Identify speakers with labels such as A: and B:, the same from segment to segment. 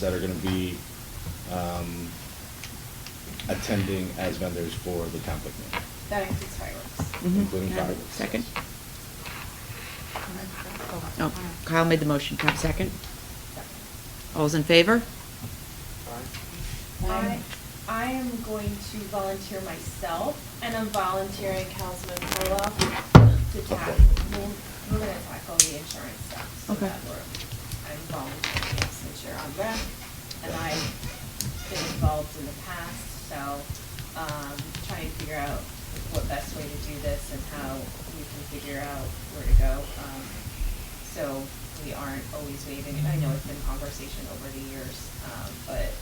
A: that are gonna be, um, attending as vendors for the conflict meeting,
B: That includes fireworks.
C: Mhm.
A: including fireworks.
C: Second?
B: Oh.
C: Oh, Kyle made the motion, can I have a second? All's in favor?
B: I, I am going to volunteer myself, and I'm volunteering Councilman Pulla to tackle, we'll- we're gonna tackle the insurance stuff. so
C: Okay.
B: that we're- I'm volunteering as the chair on rep, and I've been involved in the past, so, um, trying to figure out what best way to do this and how we can figure out where to go. um, So we aren't always waiving, I know it's been conversation over the years, um, but,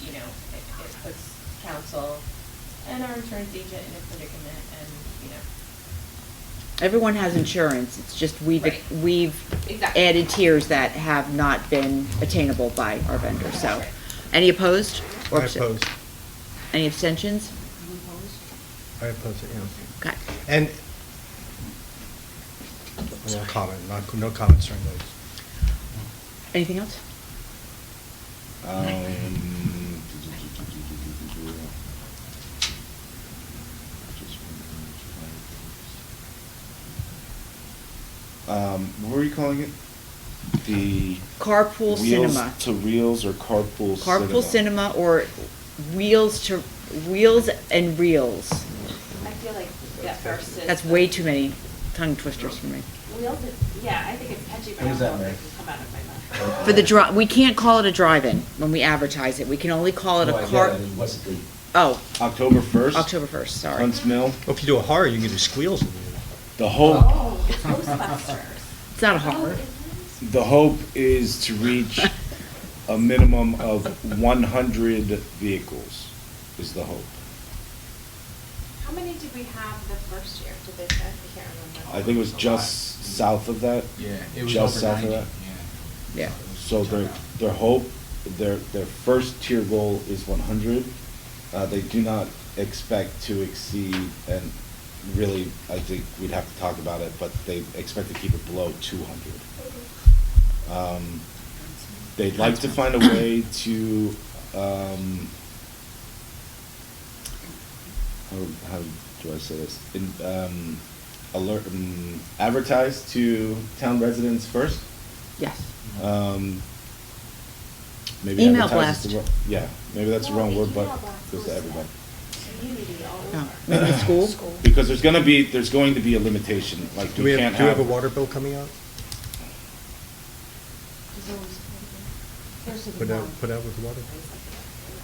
B: you know, it, it puts council and our insurance agent in a predicament and, you know.
C: Everyone has insurance, it's just we've,
B: Right.
C: we've
B: Exactly.
C: added tiers that have not been attainable by our vendors, so.
B: Right.
C: Any opposed?
D: I
C: or abst-
D: oppose,
C: Any abstentions?
D: I oppose it, yeah.
C: Okay.
D: And, no comment, not, no comments during those.
C: Anything else?
A: Um, Um, what were you calling it? The.
C: Carpool
A: Wheels
C: cinema.
A: To reels or carpool cinema?
C: Carpool cinema or wheels to, wheels and reels?
E: I feel like that first is.
C: That's way too many tongue twisters for me.
E: Wheels is, yeah, I think it's catchy, but I
A: What was
E: don't know
A: that,
E: if
A: Mary?
E: it can come out of my mouth.
C: For the dri, we can't call it a drive-in when we advertise it, we can only call it a
F: No, I get
C: car.
F: it. I mean, what's the-
C: Oh,
A: October first.
C: October first, sorry.
A: Hunts Mill,
D: Well, if you do a horror, you can do squeals in there.
A: the hope,
E: Oh, it's Ghostbusters.
C: It's not a horror.
A: the hope is to reach a minimum of one hundred vehicles, is the hope.
E: How many did we have the first year? Did they, I can't remember.
A: I think it was just south of that.
F: Yeah, it was
A: just
F: over
A: south of
F: 90,
A: that.
C: Yeah.
A: So their, their hope, their, their first tier goal is one hundred. Uh, they do not expect to exceed, and really, I think we'd have to talk about it, but they expect to keep it below two hundred. Um, they'd like to find a way to, um, how, how do I say this? In, um, alert, um, advertise to town residents first.
C: Yes.
A: Um, maybe
C: Email
A: advertise is the
C: blast.
A: wrong- Yeah, maybe that's the
E: No,
A: wrong word, but
E: email blast
A: goes
E: was
A: to everybody.
E: Community all
C: No,
E: over.
C: maybe the school?
A: Because there's gonna be, there's going to be a limitation, like
D: Do we
A: we can't
D: have, do we
A: have.
D: have a water bill coming out? Put out, put out with the water?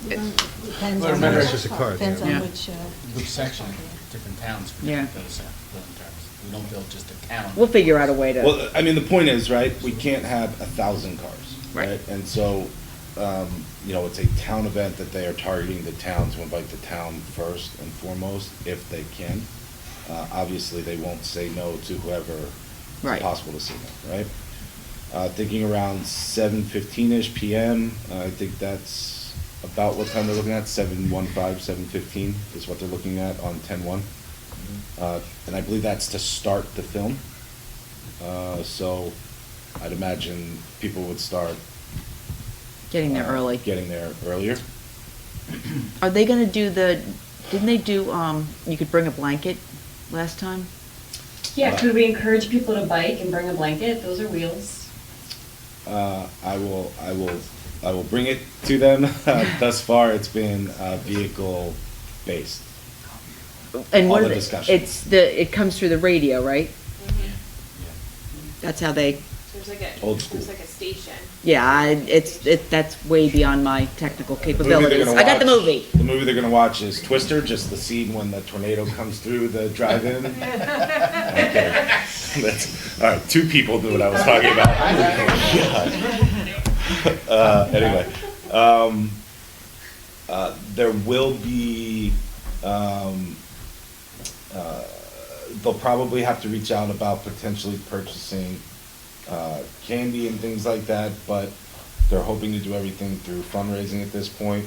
G: Depends
F: Well,
G: on
F: remember,
G: which-
F: it's just
D: a card,
G: Depends
D: yeah.
G: on
C: Yeah.
G: which, uh.
F: Which section, different towns for
C: Yeah.
F: different bills, uh, billing terms. We don't build just a town.
C: We'll figure out a way to,
A: Well, uh, I mean, the point is, right, we can't have a thousand cars,
C: Right.
A: right? And so, um, you know, it's a town event that they are targeting the town to invite the town first and foremost, if they can. Uh, obviously, they won't say no to whoever
C: Right.
A: it's possible to see no, right? Uh, thinking around seven fifteen-ish PM, I think that's about what time they're looking at, seven one five, seven fifteen is what they're looking at on ten one. Uh, and I believe that's to start the film. Uh, so I'd imagine people would start.
C: getting there
A: uh,
C: early.
A: Getting there earlier.
C: Are they gonna do the, didn't they do, um, you could bring a blanket last time?
H: Yeah, could we encourage people to bike and bring a blanket? Those are wheels.
A: Uh, I will, I will, I will bring it to them. Thus far, it's been, uh, vehicle-based.
C: And
A: All
C: what
A: the
C: are they-
A: discussion.
C: It's the, it comes through the radio, right?
E: Mhm.
C: That's how they,
E: There's like a,
A: Old school.
E: there's like a station.
C: yeah, I- it's, it, that's way beyond my technical
A: The movie they're
C: capabilities.
A: gonna
C: I got the
A: watch-
C: movie.
A: The movie they're gonna watch is Twister, just the scene when the tornado comes through the drive-in. Okay. That's, all right, two people knew what I was talking about. God. Uh, anyway, um, uh, there will be, um, uh, they'll probably have to reach out about potentially purchasing, uh, candy and things like that, but they're hoping to do everything through fundraising at this point.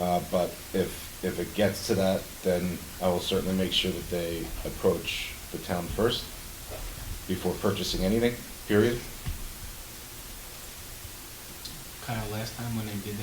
A: Uh, but if, if it gets to that, then I will certainly make sure that they approach the town first before purchasing anything, period.
F: kind of last time when they did that